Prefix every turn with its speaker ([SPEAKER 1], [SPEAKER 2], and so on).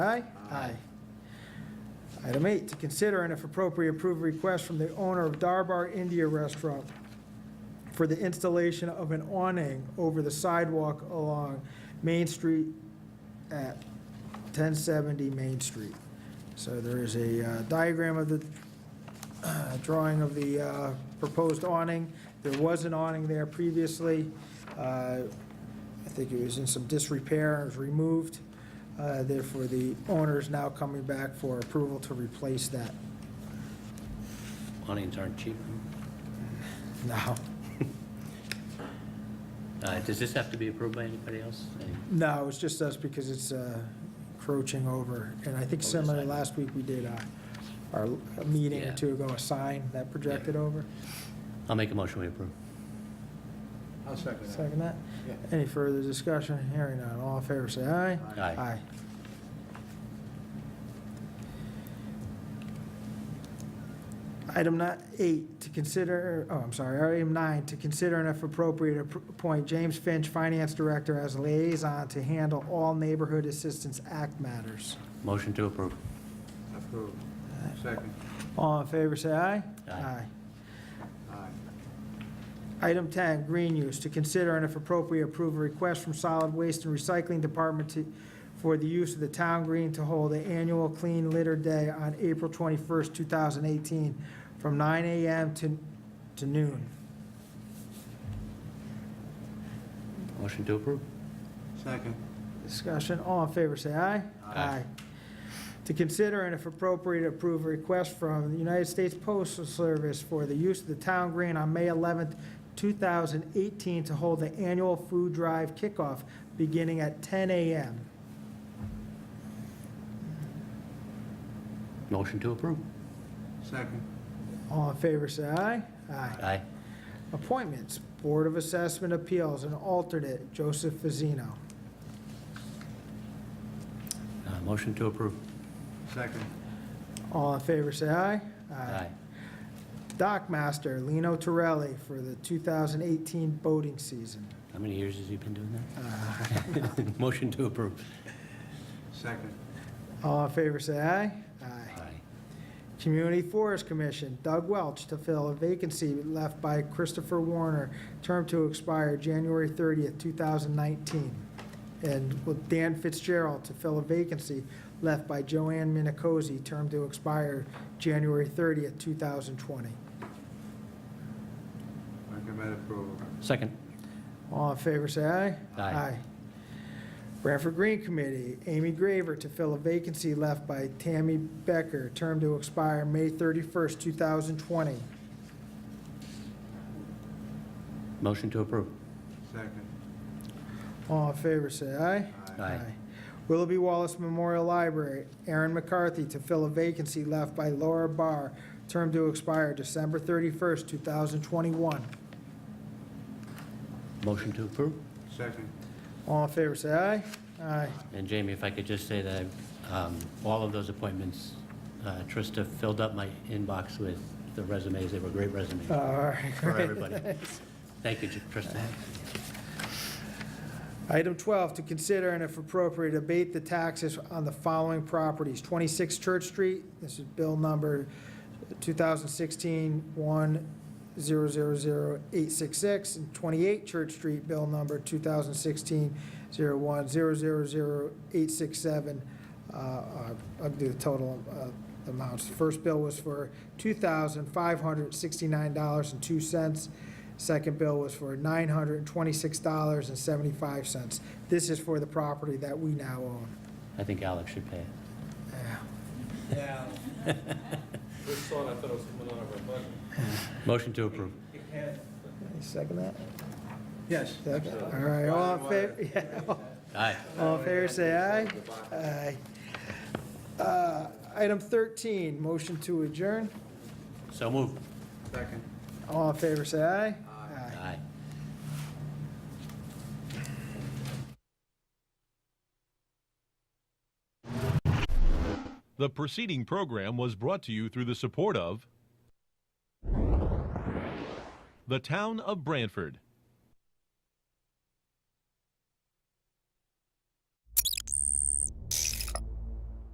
[SPEAKER 1] Aye? Aye. Item eight, to consider and if appropriate, approve a request from the owner of Darbar India Restaurant for the installation of an awning over the sidewalk along Main Street at 1070 Main Street. So there is a uh, diagram of the, uh, drawing of the uh, proposed awning. There was an awning there previously. Uh, I think it was in some disrepair, it was removed. Uh, Therefore, the owner is now coming back for approval to replace that
[SPEAKER 2] awnings aren't cheap.
[SPEAKER 1] now.
[SPEAKER 2] Uh, Does this have to be approved by anybody else? Any-
[SPEAKER 1] No, it's just us because it's uh, encroaching over. And I think similar, last week we did uh, our a meeting or
[SPEAKER 2] Yeah.
[SPEAKER 1] two ago, a sign that projected over.
[SPEAKER 2] I'll make a motion we approve.
[SPEAKER 3] I'll second that.
[SPEAKER 1] Second that?
[SPEAKER 3] Yeah.
[SPEAKER 1] Any further discussion? Hearing none. All in favor, say aye.
[SPEAKER 2] Aye.
[SPEAKER 1] Aye. Item ni- eight, to consider, oh, I'm sorry, item nine, to consider and if appropriate, appro- appoint James Finch, Finance Director, as liaison to handle all Neighborhood Assistance Act matters.
[SPEAKER 2] Motion to approve.
[SPEAKER 3] Approved. Second.
[SPEAKER 1] All in favor, say aye.
[SPEAKER 2] Aye.
[SPEAKER 3] Aye.
[SPEAKER 1] Item 10, green use, to consider and if appropriate, approve a request from Solid Waste and Recycling Department to, for the use of the town green to hold the annual Clean Litter Day on April 21st, 2018, from 9 a.m. to to noon.
[SPEAKER 2] Motion to approve.
[SPEAKER 3] Second.
[SPEAKER 1] Discussion, all in favor, say aye.
[SPEAKER 2] Aye.
[SPEAKER 1] To consider and if appropriate, approve a request from the United States Postal Service for the use of the town green on May 11th, 2018, to hold the annual food drive kickoff beginning at 10 a.m.
[SPEAKER 2] Motion to approve.
[SPEAKER 3] Second.
[SPEAKER 1] All in favor, say aye. Aye.
[SPEAKER 2] Aye.
[SPEAKER 1] Appointments, Board of Assessment Appeals, and alternate, Joseph Fazino.
[SPEAKER 2] Uh, Motion to approve.
[SPEAKER 3] Second.
[SPEAKER 1] All in favor, say aye. Dock Master, Lino Torelli, for the 2018 boating season.
[SPEAKER 2] How many years has he been doing
[SPEAKER 1] Uh,
[SPEAKER 2] that? Motion to approve.
[SPEAKER 3] Second.
[SPEAKER 1] All in favor, say aye. Aye. Community Forest Commission, Doug Welch, to fill a vacancy left by Christopher Warner, term to expire January 30th, 2019. And with Dan Fitzgerald, to fill a vacancy left by Joanne Minicozy, term to expire January 30th, 2020.
[SPEAKER 3] Recommend approval.
[SPEAKER 2] Second.
[SPEAKER 1] All in favor, say aye.
[SPEAKER 2] Aye.
[SPEAKER 1] Branford Green Committee, Amy Graver to fill a vacancy left by Tammy Becker, term to expire May 31st, 2020.
[SPEAKER 2] Motion to approve.
[SPEAKER 3] Second.
[SPEAKER 1] All in favor, say aye.
[SPEAKER 2] Aye.
[SPEAKER 1] Willoughby Wallace Memorial Library, Aaron McCarthy to fill a vacancy left by Laura Barr, term to expire December 31st, 2021.
[SPEAKER 2] Motion to approve.
[SPEAKER 3] Second.
[SPEAKER 1] All in favor, say aye. Aye.
[SPEAKER 2] And Jamie, if I could just say that um, all of those appointments, uh, Trista filled up my inbox with the resumes. They were great resumes
[SPEAKER 1] All right.
[SPEAKER 2] for everybody. Thank you, Trista.
[SPEAKER 1] Item 12, to consider and if appropriate, abate the taxes on the following properties. 26 Church Street, this is bill number 2016-1000866, and 28 Church Street, bill number 2016-010000867. Uh, uh, I'll do the total uh, amounts. The First bill was for $2,569.02. Second bill was for $926.75. This is for the property that we now own.
[SPEAKER 2] I think Alex should pay it.
[SPEAKER 1] Yeah.
[SPEAKER 4] Yeah. This thought, I thought it was coming out of our budget.
[SPEAKER 2] Motion to approve.
[SPEAKER 1] Second that?
[SPEAKER 3] Yes.
[SPEAKER 1] Second. All right, all in favor, yeah, all-
[SPEAKER 2] Aye.
[SPEAKER 1] all in favor, say aye. Aye. Uh, Item 13, motion to adjourn.
[SPEAKER 2] So moved.
[SPEAKER 3] Second.
[SPEAKER 1] All in favor, say aye. Aye.
[SPEAKER 2] Aye.
[SPEAKER 5] The preceding program was brought to you through the support of the Town of Branford